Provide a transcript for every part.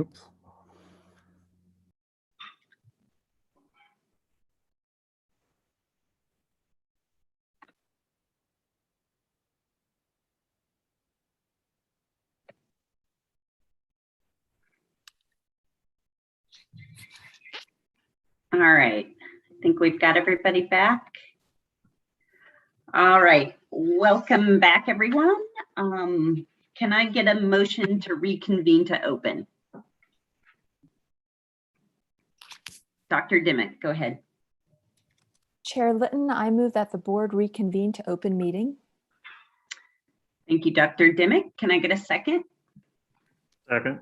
Oops. All right, I think we've got everybody back. All right, welcome back, everyone. Um, Can I get a motion to reconvene to open? Dr. Dimick, go ahead. Chair Litton, I move that the board reconvene to open meeting. Thank you, Dr. Dimick. Can I get a second? Second.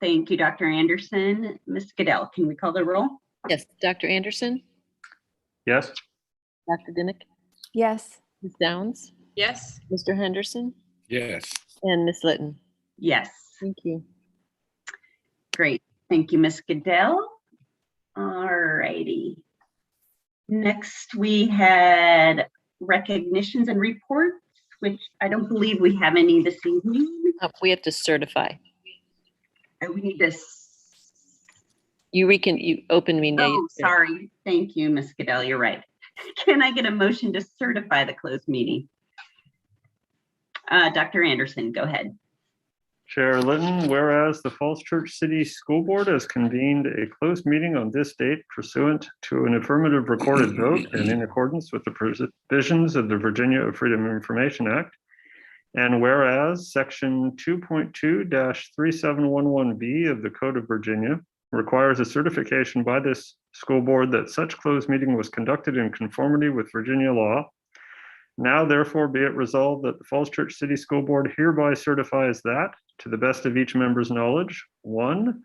Thank you, Dr. Anderson. Ms. Goodell, can we call the roll? Yes, Dr. Anderson, Yes. Dr. Dimick, Yes, Ms. Downs, Yes, Mr. Henderson, Yes, and Ms. Litton. Yes, Thank you. great. Thank you, Ms. Goodell. All righty. Next, we had recognitions and reports, which I don't believe we have any this evening. Uh, We have to certify. Uh, We need to, s- You recon, you open me now. oh, sorry. Thank you, Ms. Goodell, you're right. Can I get a motion to certify the closed meeting? Uh, Dr. Anderson, go ahead. Chair Litton, whereas the Falls Church City School Board has convened a closed meeting on this date pursuant to an affirmative recorded vote and in accordance with the provisions of the Virginia Freedom of Information Act. And whereas Section 2.2-3711B of the Code of Virginia requires a certification by this school board that such closed meeting was conducted in conformity with Virginia law now therefore be it resolved that the Falls Church City School Board hereby certifies that, to the best of each member's knowledge, one,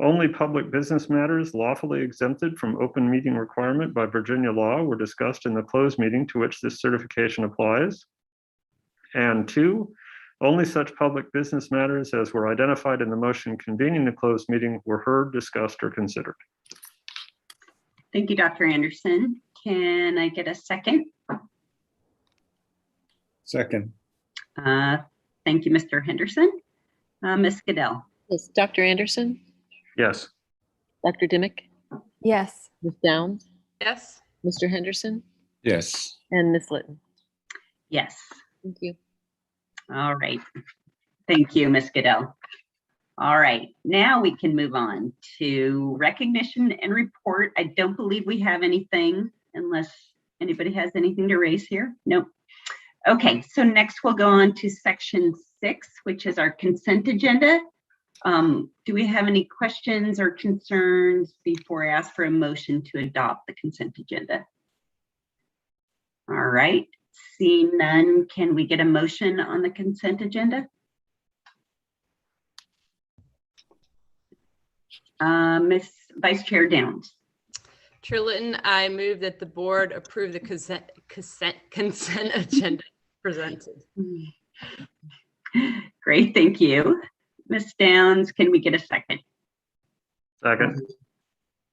only public business matters lawfully exempted from open meeting requirement by Virginia law were discussed in the closed meeting to which this certification applies. And two, only such public business matters as were identified in the motion convening the closed meeting were heard, discussed, or considered. Thank you, Dr. Anderson. Can I get a second? second, Uh, Thank you, Mr. Henderson. Uh, Ms. Goodell? Yes, Dr. Anderson, Yes. Dr. Dimick, yes, Ms. Downs, yes, Mr. Henderson, yes, and Ms. Litton. Yes. Thank you. All right. Thank you, Ms. Goodell. All right, now we can move on to recognition and report. I don't believe we have anything unless anybody has anything to raise here. Nope. Okay, so next we'll go on to section six, which is our consent agenda. Um, Do we have any questions or concerns before I ask for a motion to adopt the consent agenda? All right, Seeing none, can we get a motion on the consent agenda? Uh, Ms. Vice Chair Downs, Chair Litton, I move that the board approve the consent, consent, consent agenda presented. great, thank you. Ms. Downs, can we get a second? Second,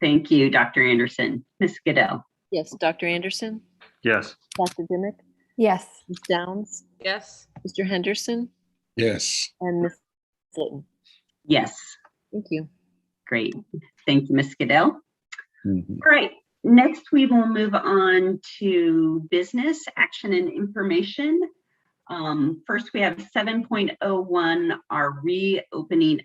Thank you, Dr. Anderson. Ms. Goodell? Yes, Dr. Anderson, yes. Dr. Dimick, yes, Ms. Downs, Yes, Mr. Henderson, yes, and Ms. Litton. Yes, Thank you. great. Thank you, Ms. Goodell. mhm, All right, next we will move on to business action and information. Um, First, we have 7.01, our oh reopening